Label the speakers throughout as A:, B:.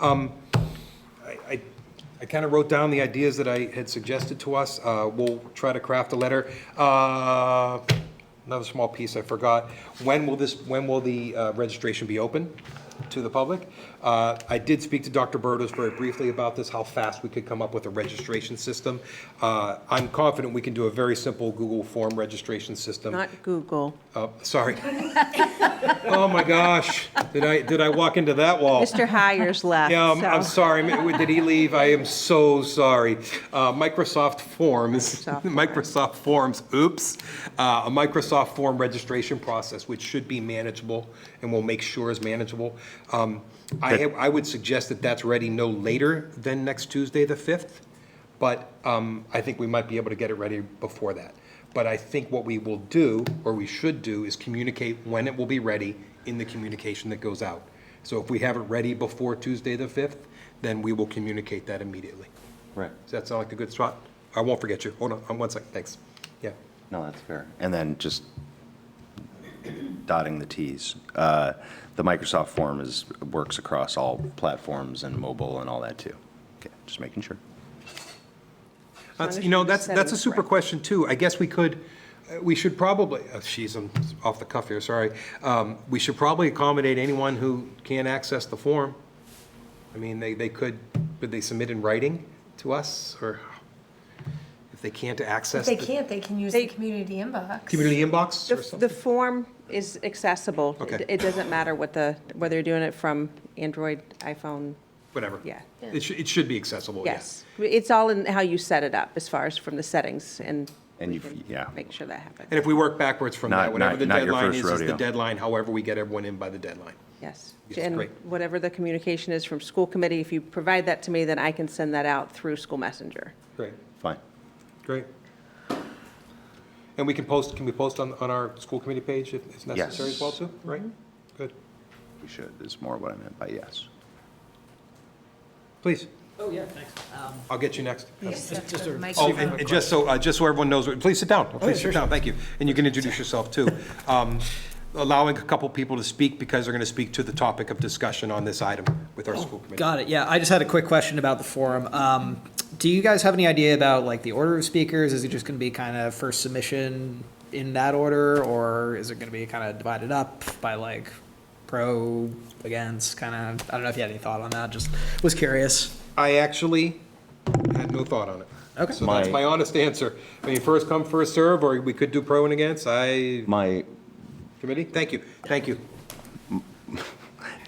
A: Um, I, I kind of wrote down the ideas that I had suggested to us. Uh, We'll try to craft a letter. Uh, Another small piece I forgot. When will this, when will the uh, registration be open to the public? Uh, I did speak to Dr. Burdos very briefly about this, how fast we could come up with a registration system. Uh, I'm confident we can do a very simple Google form registration system.
B: Not Google.
A: Uh, Sorry. Oh, my gosh. Did I, did I walk into that wall?
B: Mr. Hires left,
A: Yeah, um, I'm, I'm
B: so-
A: sorry. Ma- Did he leave? I am so sorry. Uh, Microsoft Forms,
B: Microsoft
A: Microsoft Forms, oops. Uh, a Microsoft Form registration process, which should be manageable and we'll make sure is manageable. Um, I, ha- I would suggest that that's ready no later than next Tuesday, the 5th. But um, I think we might be able to get it ready before that. But I think what we will do, or we should do, is communicate when it will be ready in the communication that goes out. So if we have it ready before Tuesday, the 5th, then we will communicate that immediately.
C: Right.
A: Does that sound like a good spot? I won't forget you. Hold on, um, one second, thanks. Yeah.
C: No, that's fair. And then just dotting the Ts. Uh, The Microsoft form is, works across all platforms and mobile and all that, too. Okay, just making sure.
A: That's,
B: as
A: you know,
B: you
A: that's,
B: said it
A: that's a
B: was
A: super
B: correct.
A: question, too. I guess we could, uh, we should probably, oh, jeez, I'm off the cuff here, sorry. Um, We should probably accommodate anyone who can't access the form. I mean, they, they could, could they submit in writing to us, or if they can't access?
D: If they
A: the
D: can't, they can use
B: They-
D: the community inbox.
A: Community inbox or
B: The,
A: something?
B: the form is accessible. It-
A: Okay.
B: It doesn't matter what the, whether you're doing it from Android, iPhone,
A: Whatever.
B: yeah.
A: It should, it should be accessible, Oh, yeah.
B: yes. It's all in how you set it up as far as from the settings and
C: And
B: we
C: you've-
B: can
C: yeah.
B: make sure that happens.
A: And if we work backwards from
C: Not-
A: that, whatever
C: not-
A: the
C: not your
A: deadline
C: first
A: is, is the
C: rodeo.
A: deadline, however we get everyone in by the deadline.
B: Yes.
A: Yes,
B: And
A: great.
B: whatever the communication is from school committee, if you provide that to me, then I can send that out through school messenger.
A: Great.
C: Fine.
A: Great. And we can post, can we post on, on our school committee page if if necessary as well,
C: Yes. Mm-hmm.
A: too? Right? Good.
C: We should, is more what I meant by yes.
A: Please,
E: Oh, yeah, thanks. Um,
A: I'll get you next.
E: Just just a
D: Mike.
A: Oh, and and just so, uh, just so everyone knows, please sit
C: Oh,
A: down, please sit down, thank you. And you can introduce yourself, too. Um, Allowing a couple people to speak because they're going to speak to the topic of discussion on this item with
C: Oh,
A: our school committee.
E: Got it. Yeah, I just had a quick question about the forum. Um, do you guys have any idea about like the order of speakers? Is it just going to be kind of first submission in that order, or is it going to be kind of divided up by like pro against? Kind of. I don't know if you had any thought on that. Just was curious.
A: I actually had no thought on it.
E: Okay.
A: So that's
C: My-
A: my honest answer. I mean, first come, first serve, or we could do pro and against. I,
C: My,
A: committee, thank you, thank you.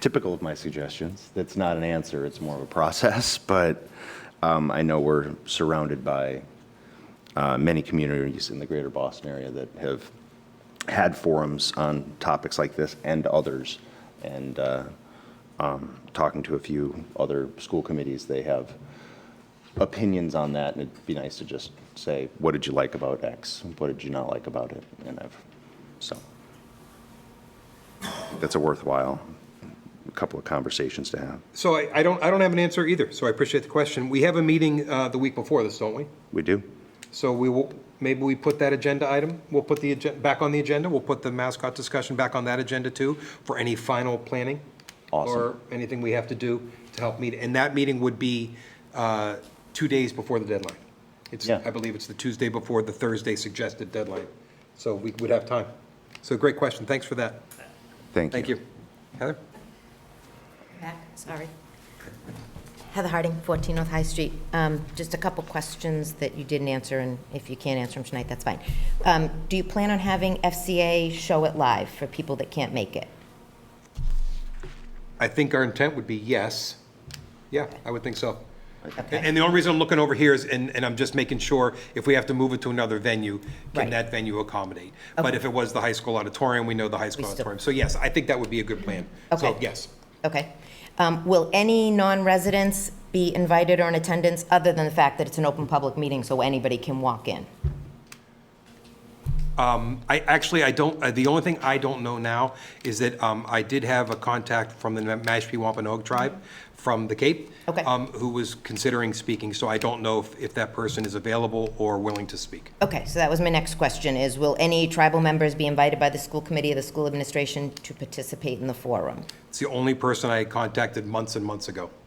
C: typical of my suggestions, that's not an answer, it's more of a process, but um, I know we're surrounded by uh, many communities in the greater Boston area that have had forums on topics like this and others. And uh, um, talking to a few other school committees, they have opinions on that. And it'd be nice to just say, what did you like about X? What did you not like about it? And I've, so. That's a worthwhile couple of conversations to have.
A: So I, I don't, I don't have an answer either, so I appreciate the question. We have a meeting uh, the week before this, don't we?
C: We do?
A: So we will, maybe we put that agenda item, we'll put the, agen- back on the agenda, we'll put the mascot discussion back on that agenda too, for any final planning.
C: Awesome.
A: Or anything we have to do to help meet, and that meeting would be uh, two days before the deadline. It's,
C: Yeah.
A: I believe it's the Tuesday before the Thursday suggested deadline, so we would have time. So great question, thanks for that,
C: Thank you.
A: thank you. Heather?
F: Back, sorry. Heather Harding, 14 North High Street. Um, Just a couple questions that you didn't answer, and if you can't answer them tonight, that's fine. Um, Do you plan on having FCA show it live for people that can't make it?
A: I think our intent would be yes. Yeah, I would think so.
F: Okay.
A: And and the only reason I'm looking over here is, and, and I'm just making sure, if we have to move it to another venue, can
F: Right.
A: that venue accommodate? But
F: Okay.
A: if it was the high school auditorium, we know the high school
F: still-
A: auditorium. So yes, I think that would be a good plan. So
F: Okay.
A: yes,
F: Okay. Um, Will any non-residents be invited or in attendance, other than the fact that it's an open public meeting, so anybody can walk in?
A: I, actually, I don't, uh, the only thing I don't know now is that um, I did have a contact from the Mashpee Wampanoag tribe from the Cape.
F: Mm-hmm. Okay.
A: um, Who was considering speaking, so I don't know if, if that person is available or willing to speak.
F: Okay, so that was my next question, is will any tribal members be invited by the school committee or the school administration to participate in the forum?
A: It's the only person I contacted months and months ago.